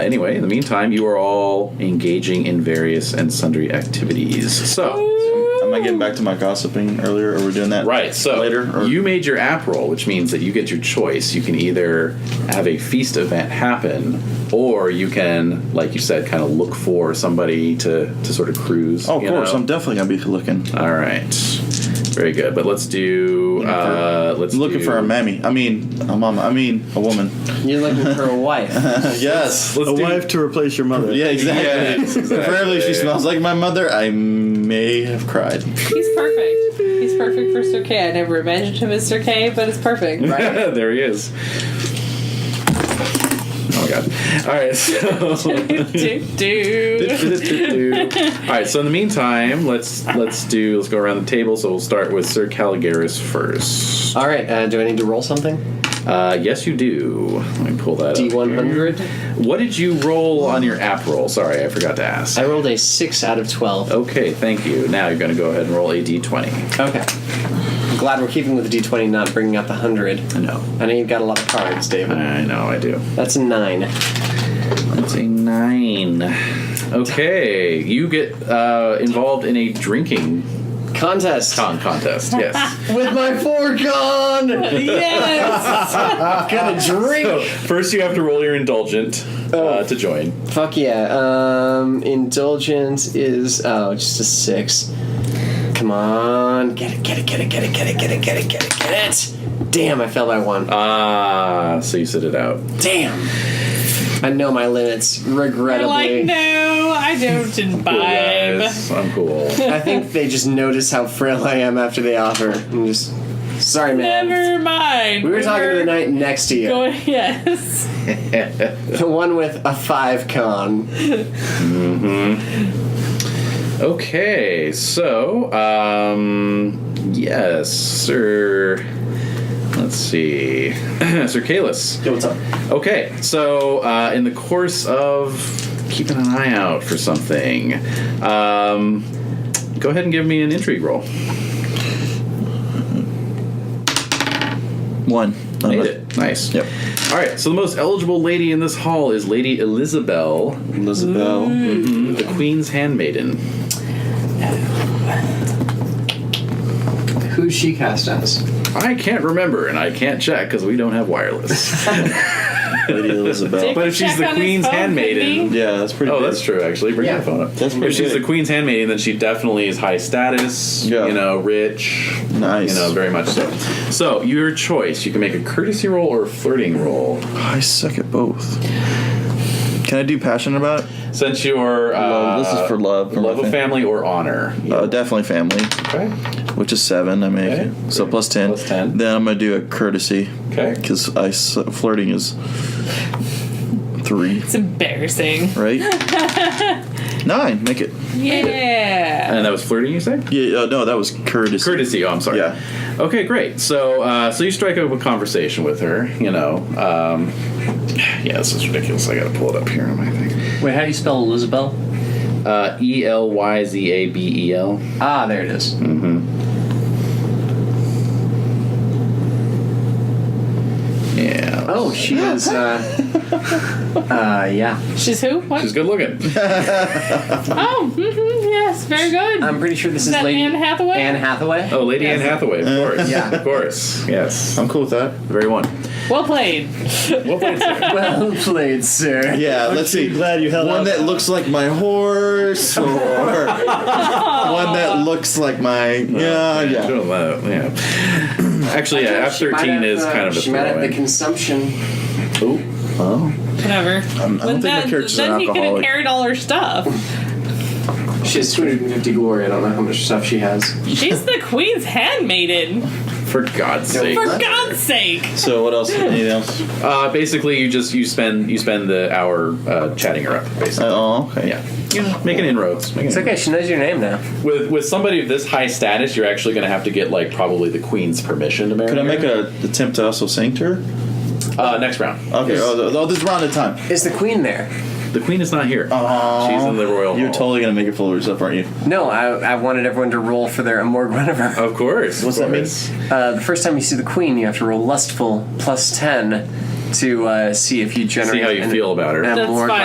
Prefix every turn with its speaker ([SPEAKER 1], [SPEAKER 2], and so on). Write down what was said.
[SPEAKER 1] Anyway, in the meantime, you are all engaging in various and sundry activities. So,
[SPEAKER 2] Am I getting back to my gossiping earlier? Are we doing that?
[SPEAKER 1] right, so
[SPEAKER 2] later. Or
[SPEAKER 1] you made your app roll, which means that you get your choice. You can either have a feast event happen, or you can, like you said, kind of look for somebody to, to sort of cruise.
[SPEAKER 2] oh, of
[SPEAKER 1] you
[SPEAKER 2] course.
[SPEAKER 1] know?
[SPEAKER 2] I'm definitely gonna be looking.
[SPEAKER 1] all right, very good. But let's do. Uh, let's
[SPEAKER 2] looking
[SPEAKER 1] do-
[SPEAKER 2] for a mammy. I mean, a mama. I mean, a woman.
[SPEAKER 3] You're looking for a wife.
[SPEAKER 2] yes.
[SPEAKER 1] Let's
[SPEAKER 4] a
[SPEAKER 1] do-
[SPEAKER 4] wife to replace your mother.
[SPEAKER 2] Yeah, exactly.
[SPEAKER 1] Yes, exactly.
[SPEAKER 2] Preferably, if she smells like my mother. I may have cried.
[SPEAKER 5] He's perfect. He's perfect for Sir Kay. I never imagined him as Sir Kay, but it's perfect, right?
[SPEAKER 1] there he is. Oh my god. All right, so.
[SPEAKER 5] do, do.
[SPEAKER 1] All right. So in the meantime, let's let's do let's go around the table. So we'll start with Sir Caligaris first.
[SPEAKER 3] All right, uh, do I need to roll something?
[SPEAKER 1] Uh, yes, you do. Let me pull that. up here.
[SPEAKER 3] D100.
[SPEAKER 1] What did you roll on your app roll? Sorry, I forgot to ask.
[SPEAKER 3] I rolled a 6 out of 12.
[SPEAKER 1] Okay, thank you. Now you're going to go ahead and roll a d20.
[SPEAKER 3] Okay. Glad we're keeping with the D20, not bringing out the 100.
[SPEAKER 1] I know.
[SPEAKER 3] I know you've got a lot of cards, David.
[SPEAKER 1] I know. I do.
[SPEAKER 3] That's a 9.
[SPEAKER 1] That's a nine. Okay, you get uh, involved in a drinking
[SPEAKER 3] Contest!
[SPEAKER 1] con contest. Yes.
[SPEAKER 3] With my foregone!
[SPEAKER 5] Yes.
[SPEAKER 3] Got a drink!
[SPEAKER 1] So Oh, first, you have to roll your indulgent uh, to join.
[SPEAKER 3] Fuck yeah. Um, indulgence is oh, just a six. Come on, get it, get it, get it, get it, get it, get it, get it, get it, get it. Damn, I fell by one.
[SPEAKER 1] Ah, so you sit it out.
[SPEAKER 3] Damn. I know my limits,
[SPEAKER 5] You're
[SPEAKER 3] regrettably.
[SPEAKER 5] like, no, I don't imbibe.
[SPEAKER 1] Guys, I'm cool.
[SPEAKER 3] I think they just notice how frail I am after they offer. I'm just sorry, man.
[SPEAKER 5] Never mind.
[SPEAKER 3] We were talking to the night next to you.
[SPEAKER 5] Going, yes.
[SPEAKER 3] The one with a five con.
[SPEAKER 1] Okay, so um, yes, sir. Let's see, Sir Kalis.
[SPEAKER 2] Yo, what's up?
[SPEAKER 1] Okay, so uh, in the course of keeping an eye out for something, um, go ahead and give me an intrigue roll.
[SPEAKER 2] One.
[SPEAKER 1] Made it. Nice.
[SPEAKER 2] Yep.
[SPEAKER 1] All right. So the most eligible lady in this hall is Lady Elizabeth,
[SPEAKER 2] Elizabeth.
[SPEAKER 1] the Queen's handmaiden.
[SPEAKER 3] Who's she cast as?
[SPEAKER 1] I can't remember, and I can't check because we don't have wireless.
[SPEAKER 2] Lady Elizabeth.
[SPEAKER 1] But if she's
[SPEAKER 5] Check
[SPEAKER 1] the
[SPEAKER 5] on his
[SPEAKER 1] queen's
[SPEAKER 5] phone,
[SPEAKER 1] handmaiden-
[SPEAKER 5] couldn't he?
[SPEAKER 2] Yeah, that's pretty.
[SPEAKER 1] oh,
[SPEAKER 2] good.
[SPEAKER 1] that's true. Actually, bring
[SPEAKER 3] Yeah.
[SPEAKER 1] your phone up.
[SPEAKER 2] That's pretty
[SPEAKER 1] if she's
[SPEAKER 2] good.
[SPEAKER 1] the queen's handmaiden, then she definitely is high status.
[SPEAKER 2] Yeah.
[SPEAKER 1] You know, rich.
[SPEAKER 2] Nice.
[SPEAKER 1] You know, very much so. So your choice. You can make a courtesy roll or a flirting roll.
[SPEAKER 2] I suck at both. Can I do passionate about it?
[SPEAKER 1] Since your uh,
[SPEAKER 2] Love. This is for love, for
[SPEAKER 1] love
[SPEAKER 2] my
[SPEAKER 1] of
[SPEAKER 2] fam-
[SPEAKER 1] family or honor.
[SPEAKER 2] Uh, definitely family,
[SPEAKER 1] Okay.
[SPEAKER 2] which is seven. I make
[SPEAKER 1] Okay.
[SPEAKER 2] it. So plus ten.
[SPEAKER 1] Plus 10.
[SPEAKER 2] Then I'm gonna do a courtesy
[SPEAKER 1] Okay.
[SPEAKER 2] because I su- flirting is three,
[SPEAKER 5] It's embarrassing.
[SPEAKER 2] right? Nine. Make it.
[SPEAKER 5] Yeah.
[SPEAKER 1] And that was flirting. You say?
[SPEAKER 2] Yeah. Uh, no, that was courtesy.
[SPEAKER 1] Courtesy. Oh, I'm sorry.
[SPEAKER 2] Yeah.
[SPEAKER 1] Okay, great. So, uh, so you strike up a conversation with her. You know. Um, yeah, this is ridiculous. I got to pull it up here on my thing.
[SPEAKER 3] Wait, how do you spell Elizabeth?
[SPEAKER 1] Uh, e L Y Z A B E L. Mm-hmm.
[SPEAKER 3] Ah, there it is.
[SPEAKER 1] Yeah.
[SPEAKER 3] Oh, she is. Uh, uh, yeah.
[SPEAKER 5] She's who? What?
[SPEAKER 1] She's good looking.
[SPEAKER 5] oh, mhm, yes, very good.
[SPEAKER 3] I'm pretty sure this
[SPEAKER 5] is
[SPEAKER 3] is
[SPEAKER 5] that
[SPEAKER 3] Lady
[SPEAKER 5] Anne Hathaway?
[SPEAKER 3] Anne Hathaway.
[SPEAKER 1] Oh, Lady Anne Hathaway, of course.
[SPEAKER 3] Uh, Yeah.
[SPEAKER 1] Of course. Yes.
[SPEAKER 2] I'm cool with that.
[SPEAKER 1] Very one.
[SPEAKER 5] Well played.
[SPEAKER 1] Well played, sir.
[SPEAKER 3] Well played, sir.
[SPEAKER 2] Yeah. let's see.
[SPEAKER 4] Glad you held
[SPEAKER 2] One
[SPEAKER 4] up.
[SPEAKER 2] that looks like my horse, or one that looks like my yeah,
[SPEAKER 1] Yeah.
[SPEAKER 2] yeah.
[SPEAKER 1] yeah. Actually, yeah, F
[SPEAKER 3] She might
[SPEAKER 1] thirteen
[SPEAKER 3] have,
[SPEAKER 1] is
[SPEAKER 3] uh,
[SPEAKER 1] kind of a
[SPEAKER 3] She might have the
[SPEAKER 1] throwaway.
[SPEAKER 3] consumption.
[SPEAKER 5] Whatever.
[SPEAKER 2] I don't think my character's
[SPEAKER 5] then
[SPEAKER 2] an
[SPEAKER 5] he could have
[SPEAKER 2] alcoholic.
[SPEAKER 5] carried all her stuff.
[SPEAKER 3] She has 250 glory. I don't know how much stuff she has.
[SPEAKER 5] She's the queen's handmaiden.
[SPEAKER 1] For God's sake.
[SPEAKER 5] For God's sake.
[SPEAKER 2] So what else? Anything else?
[SPEAKER 1] Uh, basically, you just you spend you spend the hour uh, chatting her up. Basically.
[SPEAKER 2] Oh, okay.
[SPEAKER 1] Yeah. Yeah. Making inroads. Making inroads.
[SPEAKER 3] She knows your name now.
[SPEAKER 1] With with somebody of this high status, you're actually going to have to get like probably the queen's permission to marry.
[SPEAKER 2] Could I make
[SPEAKER 1] her.
[SPEAKER 2] a attempt to also sing to her?
[SPEAKER 1] uh, next round?
[SPEAKER 2] Okay. Oh, th- oh, this is round of time.
[SPEAKER 3] Is the queen there?
[SPEAKER 1] The queen is not here.
[SPEAKER 2] Oh,
[SPEAKER 1] She's in the royal.
[SPEAKER 2] You're
[SPEAKER 1] hall.
[SPEAKER 2] totally gonna make it full of yourself, aren't you?
[SPEAKER 3] No, I, I wanted everyone to roll for their Amorg whatever.
[SPEAKER 1] Of course.
[SPEAKER 2] What's
[SPEAKER 1] of
[SPEAKER 2] that mean?
[SPEAKER 1] course.
[SPEAKER 3] Uh, the first time you see the queen, you have to roll lustful plus 10 to uh, see if you generate
[SPEAKER 1] See how you
[SPEAKER 3] an-
[SPEAKER 1] feel about her.
[SPEAKER 3] an
[SPEAKER 5] That's
[SPEAKER 3] Amorg
[SPEAKER 5] fine.